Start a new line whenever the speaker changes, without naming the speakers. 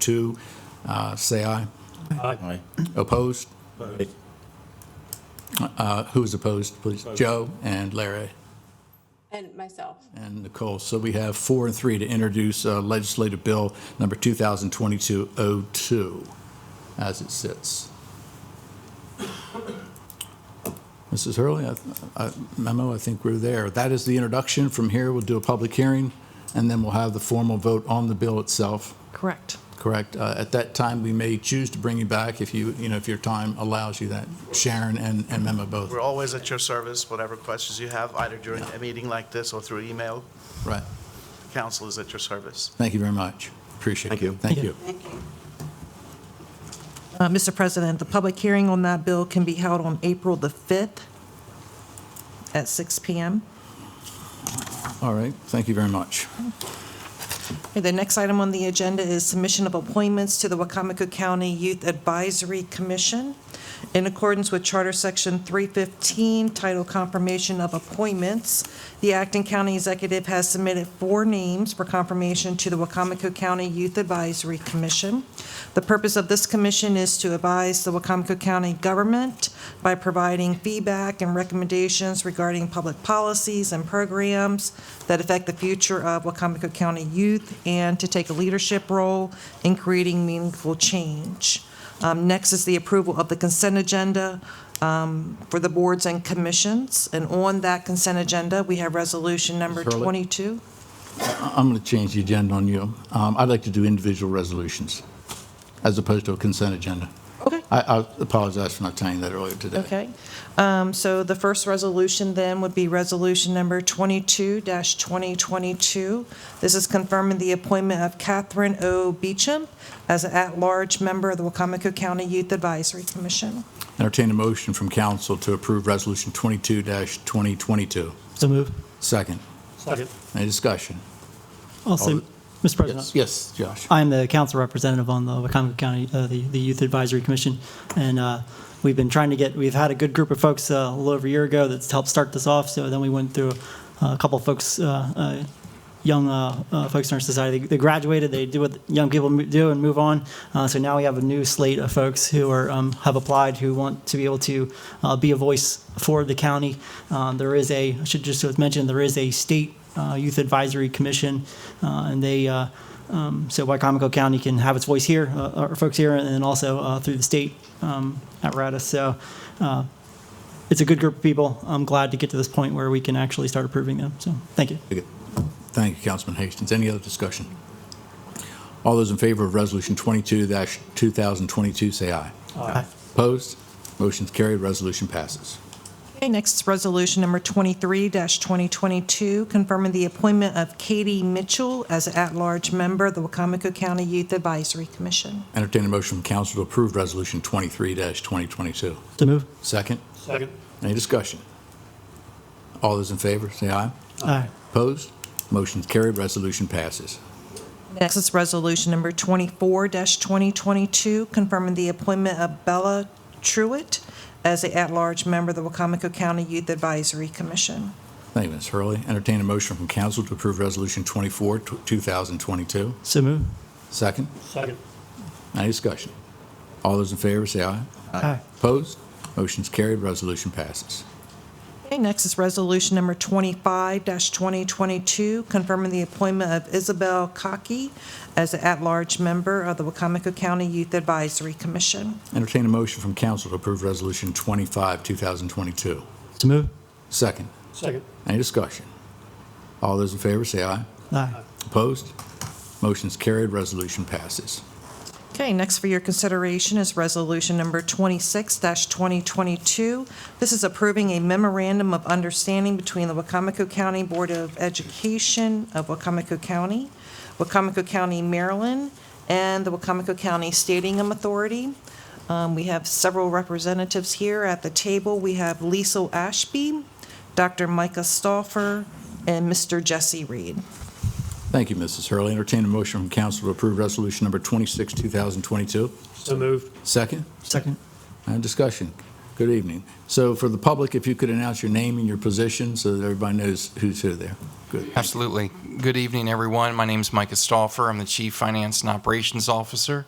two, uh, say aye.
Aye.
Opposed? Uh, Who is opposed, please? Joe and Larry
And myself.
and Nicole. So we have four and three to introduce uh, legislative bill number 2022-02 as it sits. Mrs. Hurley, I- I- memo, I think we're there. That is the introduction. From here, we'll do a public hearing, and then we'll have the formal vote on the bill itself.
Correct.
Correct. Uh, At that time, we may choose to bring you back if you, you know, if your time allows you that, Sharon and and Memo both.
We're always at your service, whatever questions you have, either during a meeting like this or through email.
Right.
Council is at your service.
Thank you very much. Appreciate it.
Thank you.
Thank you.
Thank you.
Uh, Mr. President, the public hearing on that bill can be held on April the 5th at 6 PM.
All right. Thank you very much.
Okay, The next item on the agenda is submission of appointments to the Wacomico County Youth Advisory Commission. In accordance with Charter Section 315, Title Confirmation of Appointments, the Acton County Executive has submitted four names for confirmation to the Wacomico County Youth Advisory Commission. The purpose of this commission is to advise the Wacomico County government by providing feedback and recommendations regarding public policies and programs that affect the future of Wacomico County youth and to take a leadership role in creating meaningful change. Um, Next is the approval of the consent agenda um, for the boards and commissions. And on that consent agenda, we have resolution number
Ms. Hurley?
22.
I'm going to change the agenda on you. Um, I'd like to do individual resolutions as opposed to a consent agenda.
Okay.
I- I apologize for not telling you that earlier today.
Okay. Um, So the first resolution then would be Resolution Number 22-2022. This is confirming the appointment of Catherine O. Beecham as an at-large member of the Wacomico County Youth Advisory Commission.
Entertain a motion from council to approve Resolution 22-2022.
So move.
Second.
Second.
Any discussion?
Also, Mr.
Yes,
President,
Yes, Josh.
I'm the council representative on the Wycomico County, uh, the the Youth Advisory Commission, and uh, we've been trying to get, we've had a good group of folks uh, a little over a year ago that's helped start this off, so then we went through uh, a couple of folks, uh, uh, young uh, uh, folks in our society, they graduated, they do what young people mo- do and move on, Uh, so now we have a new slate of folks who are, um, have applied, who want to be able to uh, be a voice for the county. Uh, There is a, I should just mention, there is a state uh, Youth Advisory Commission, uh, and they, uh, um, so Wycomico County can have its voice here, uh, our folks here, and then also uh, through the state um, apparatus. So uh, it's a good group of people. I'm glad to get to this point where we can actually start approving them. So thank you.
Thank you, Councilman Hastings. Any other discussion? All those in favor of Resolution 22-2022, say aye.
Aye.
Opposed? Motion's carried, resolution passes.
Okay, next is Resolution Number 23-2022, confirming the appointment of Katie Mitchell as an at-large member of the Wacomico County Youth Advisory Commission.
Entertain a motion from council to approve Resolution 23-2022.
So move.
Second.
Second.
Any discussion? All those in favor, say aye.
Aye.
Opposed? Motion's carried, resolution passes.
Next is Resolution Number 24-2022, confirming the appointment of Bella Truitt as an at-large member of the Wacomico County Youth Advisory Commission.
Thank you, Ms. Hurley. Entertain a motion from council to approve Resolution 24, tw- 2022.
So move.
Second.
Second.
Any discussion? All those in favor, say aye.
Aye.
Opposed? Motion's carried, resolution passes.
Okay, next is Resolution Number 25-2022, confirming the appointment of Isabel Cockey as an at-large member of the Wacomico County Youth Advisory Commission.
Entertain a motion from council to approve Resolution 25, 2022.
So move.
Second.
Second.
Any discussion? All those in favor, say aye.
Aye.
Opposed? Motion's carried, resolution passes.
Okay, next for your consideration is Resolution Number 26-2022. This is approving a memorandum of understanding between the Wacomico County Board of Education of Wacomico County, Wacomico County, Maryland, and the Wacomico County Stadium Authority. Um, We have several representatives here at the table. We have Liesel Ashby, Dr. Micah Stoffer, and Mr. Jesse Reed.
Thank you, Mrs. Hurley. Entertain a motion from council to approve Resolution Number 26, 2022.
So moved.
Second.
Second.
And Uh, discussion. Good evening. So for the public, if you could announce your name and your position so that everybody knows who's who there. Good.
Absolutely. Good evening, everyone. My name is Mike Stoffer. I'm the Chief Finance and Operations Officer.